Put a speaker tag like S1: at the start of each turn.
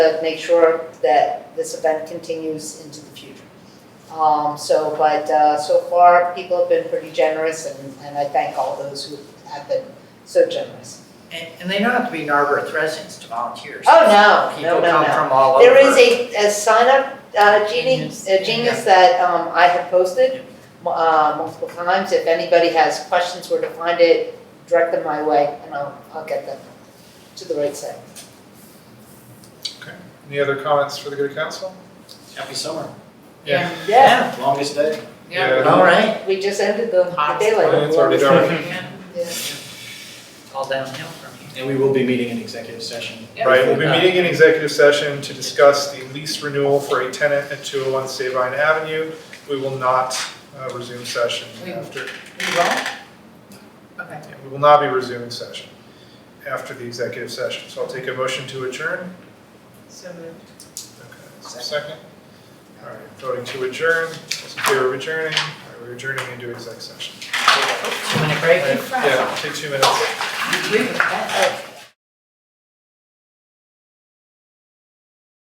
S1: make sure that this event continues into the future. Um, so, but, uh, so far, people have been pretty generous and, and I thank all those who have been so generous.
S2: And, and they don't have to be Narberth residents to volunteer.
S1: Oh, no, no,
S2: People
S1: no, no.
S2: come from all over.
S1: There is a, a sign up, uh, genie,
S2: Genius.
S1: a genius that, um, I have posted, uh, multiple times. If anybody has questions where to find it, direct them my way and I'll, I'll get them to the right site.
S3: Any other comments for the good of council?
S4: Happy summer.
S3: Yeah.
S1: Yeah,
S4: Longest day.
S3: Yeah.
S2: All right.
S1: we just ended the the daylight.
S3: It's already dark.
S2: Yeah,
S1: Yeah.
S2: All downhill from here.
S4: And we will be meeting in executive session. Uh,
S3: Right, we'll be meeting in executive session to discuss the lease renewal for a tenant at 201 Sabine Avenue. We will not uh, resume session
S2: We-
S3: after,
S2: We won't? Okay.
S3: yeah, we will not be resuming session after the executive session. So I'll take a motion to adjourn.
S2: So moved.
S3: Okay, is there a Second. All right, voting to adjourn, those in favor of adjourning, All right, we're adjourning into exec session.
S2: Two minute break.
S3: Yeah, take two minutes.
S2: You agree with that?
S1: Oh,